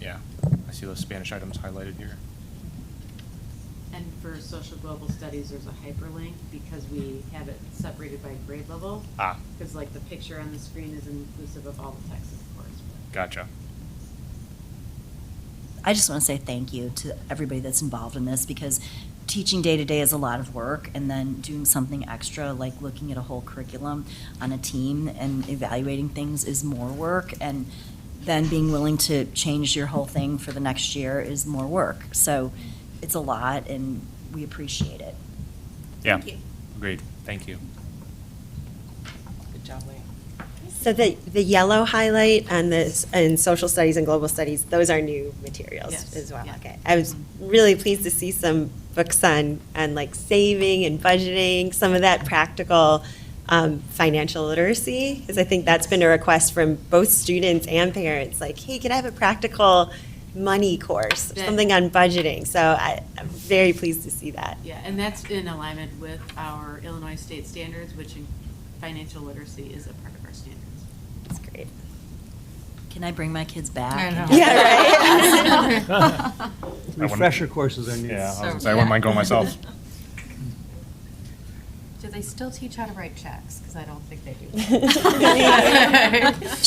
Yeah, I see those Spanish items highlighted here. And for social global studies, there's a hyperlink because we have it separated by grade level. Ah. Because like the picture on the screen is inclusive of all the text, of course. but- Gotcha. I just want to say thank you to everybody that's involved in this because teaching day to day is a lot of work, and then doing something extra like looking at a whole curriculum on a team and evaluating things is more work, and then being willing to change your whole thing for the next year is more work. So it's a lot, and we appreciate it. Yeah, Thank you. agreed. Thank you. Good job, Leah. So the, the yellow highlight on this, in social studies and global studies, those are new Yes, materials as well. yeah. Okay. I was really pleased to see some books on, on like saving and budgeting, some of that practical um, financial literacy, because I think that's been a request from both students and parents, like, hey, can I have a practical money course, or That- something on budgeting? So I, I'm very pleased to see that. Yeah, and that's in alignment with our Illinois state standards, which in- financial literacy is a part of our standards. It's great. Can I bring my kids back? I know. Yeah, Ah. right. I wouldn't- Refresher courses are needed. Yeah, I was gonna So- say, I wouldn't mind going myself. Do they still teach how to write checks? Because I don't think they do. Checks?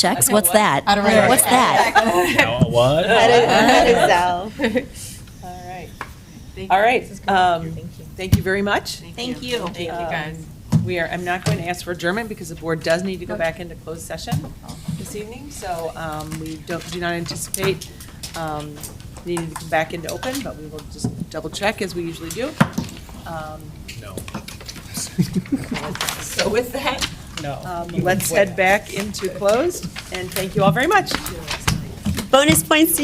Checks? What's that? How to write a What's check. that? Now, what? That is, that is Zell. All right. Thank All you. right. um, Thank you very much. Thank you. Thank you, guys. Um, We are, I'm not going to ask for adjournment because the board does need to go back into closed session this evening. So um, we don't, do not anticipate um, needing to come back into open, but we will just double check as we usually do. Um, No. So with that, No. um, let's head back into closed, and thank you all very much. Bonus points to